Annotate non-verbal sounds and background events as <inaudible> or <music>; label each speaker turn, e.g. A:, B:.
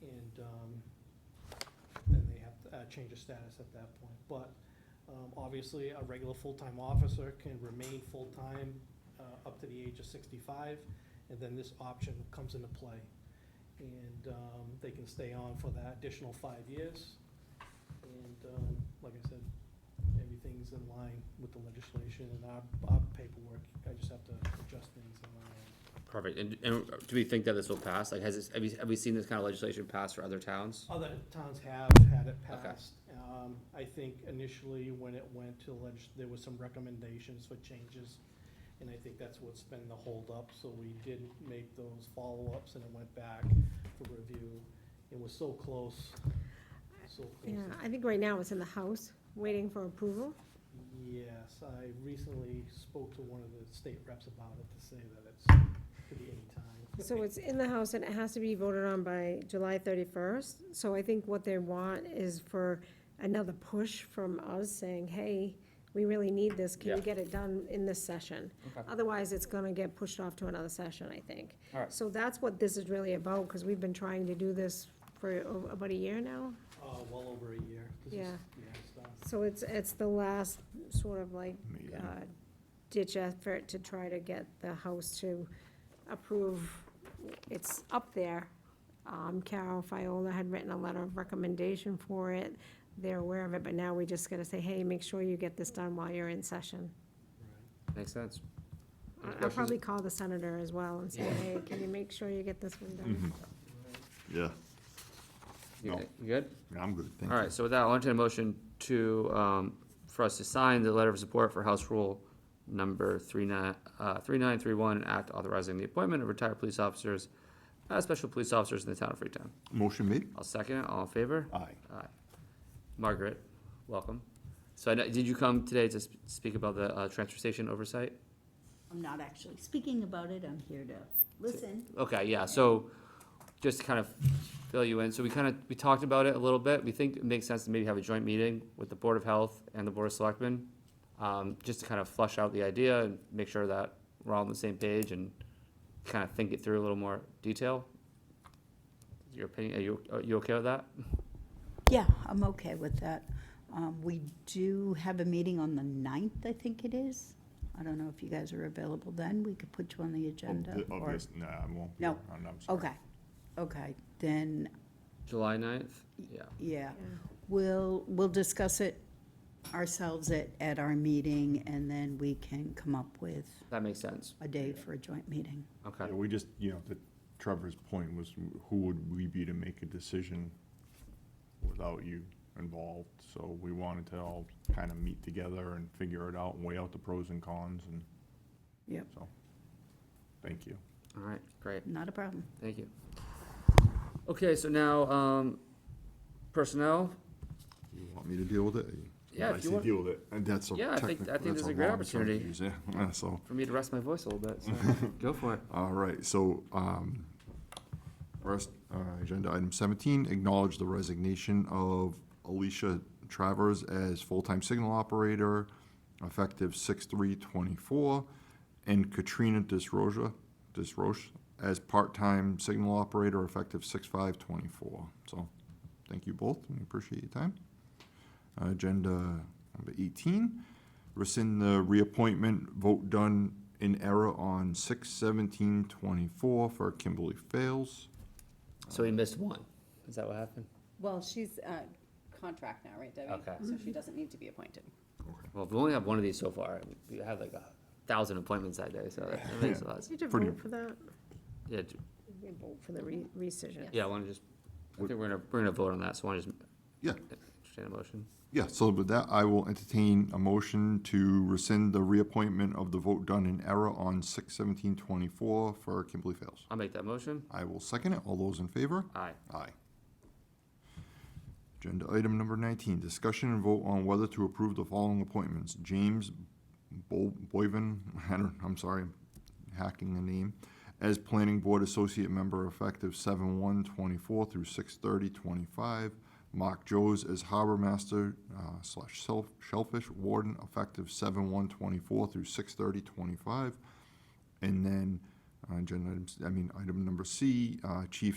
A: um, that uh, change of status at that point. But um, obviously, a regular full-time officer can remain full-time uh, up to the age of 65, and then this option comes into play. And um, they can stay on for that additional five years. And um, like I said, everything's in line with the legislation and our our paperwork. I just have to adjust things on my end.
B: Perfect, and, and do we think that this will pass? Like, has this, have we, have we seen this kind of legislation pass for other towns?
A: Other towns have had it passed. Um, I think initially when it went to legis, there was some recommendations for changes. And I think that's what's been the holdup, so we did make those follow-ups and it went back for review. It was so close, so
C: Yeah,
A: close.
C: I think right now it's in the House, waiting for approval.
A: Yes, I recently spoke to one of the state reps about it to say that it's, could be any time.
C: So it's in the House and it has to be voted on by July thirty-first. So I think what they want is for another push from us saying, hey, we really need this, can
B: Yeah.
C: you get it done in this session?
B: Okay.
C: Otherwise, it's gonna get pushed off to another session, I think.
B: All right.
C: So that's what this is really about, because we've been trying to do this for o- about a year now.
A: Uh, well over a year. This is-
C: Yeah.
A: Yeah, it's done.
C: So it's, it's the last sort of like
D: Meeting.
C: uh, ditch effort to try to get the House to approve. It's up there. Um, Carol Fiola had written a letter of recommendation for it. They're aware of it, but now we just gotta say, hey, make sure you get this done while you're in session.
A: Right.
B: Makes sense.
C: I-
B: Any
C: I'll
B: questions?
C: probably call the senator as well and say,
B: Yeah. Mm.
C: hey, can you make sure you get this one
D: Mm-hmm.
C: done?
A: Right.
D: Yeah,
B: You you good?
D: I'm good, thank you.
B: All right, so with that, I'll entertain a motion to, um, for us to sign the letter of support for House Rule number three nine, uh, three nine three one, an act authorizing the appointment of retired police officers as special police officers in the town of Freetown.
D: Motion made? Oh,
B: I'll second it, all in favor?
D: Aye.
B: Aye. Margaret, welcome. So I know, did you come today to sp- speak about the, uh, transfer station oversight?
E: I'm not actually speaking about it, I'm here to listen.
B: Okay, yeah, so just to kind of fill you in, so we kind of, we talked about it a little bit. We think it makes sense to maybe have a joint meeting with the Board of Health and the Board of Selectmen, um, just to kind of flush out the idea and make sure that we're all on the same page and kind of think it through a little more detail. Your opinion, are you, are you okay with that?
E: Yeah, I'm okay with that. Um, we do have a meeting on the ninth, I think it is. I don't know if you guys are available then, we could put you on the agenda.
D: Of
E: or-
D: this, no, oh, I won't be.
E: No.
D: around, I'm sorry.
E: Okay, okay, then,
B: July ninth? Yeah.
E: yeah, we'll, we'll discuss it ourselves at, at our meeting, and then we can come up with
B: That makes sense.
E: a day for a joint meeting.
B: Okay.
D: Yeah, we just, you know, to Trevor's point was, who would we be to make a decision without you involved? So we wanted to all kind of meet together and figure it out and weigh out the pros and cons and
E: Yep.
D: so, thank you.
B: All right, great.
E: Not a problem.
B: Thank you. Okay, so now, um, personnel,
D: You want me to deal with it?
B: Yeah, if
D: I
B: you
D: say
B: want-
D: deal with it, and that's a
B: Yeah, I think- I
D: technical-
B: think
D: that's
B: this is a great
D: long
B: opportunity.
D: sentence, Yeah, Yeah, <laughs> so.
B: for me to rest my voice a little bit, <laughs> so go for it.
D: All right, so, um, first, uh, agenda item seventeen, acknowledge the resignation of Alicia Travers as full-time signal operator, effective six-three twenty-four, and Katrina Disroja, Disroche, as part-time signal operator, effective six-five twenty-four. So, thank you both, and we appreciate your time. Agenda number 18, rescind the reappointment vote done in error on 6/17/24 for Kimberly Fails.
B: So we missed one. Is that what happened?
F: Well, she's uh, contract now, right, Debbie?
B: Okay.
F: So she doesn't need to be appointed.
B: Well, if we only have one of these so far, we have like a thousand appointments that day, so that that makes a lot. of sense.
C: Did you
D: Pretty-
C: vote for that?
B: Yeah, d-
C: You vote for the re- rescission.
B: yeah, I wanna just, I think we're gonna, we're gonna vote on that, so I wanna just
D: Yeah,
B: entertain a motion.
D: yeah, so with that, I will entertain a motion to rescind the reappointment of the vote done in error on 6/17/24 for Kimberly Fails.
B: I'll make that motion.
D: I will second it. All those in favor?
B: Aye.
D: Aye. Agenda item number nineteen, discussion and vote on whether to approve the following appointments. James Bo- Boyven, <laughs> I don't, I'm sorry, hacking the name, as Planning Board Associate Member effective seven one twenty-four through six thirty twenty-five. Mark Joes as Harbor Master uh, slash Shell- Shellfish Warden effective seven one twenty-four through six thirty twenty-five. And then, uh, agenda items, I mean, item number C, uh, Chief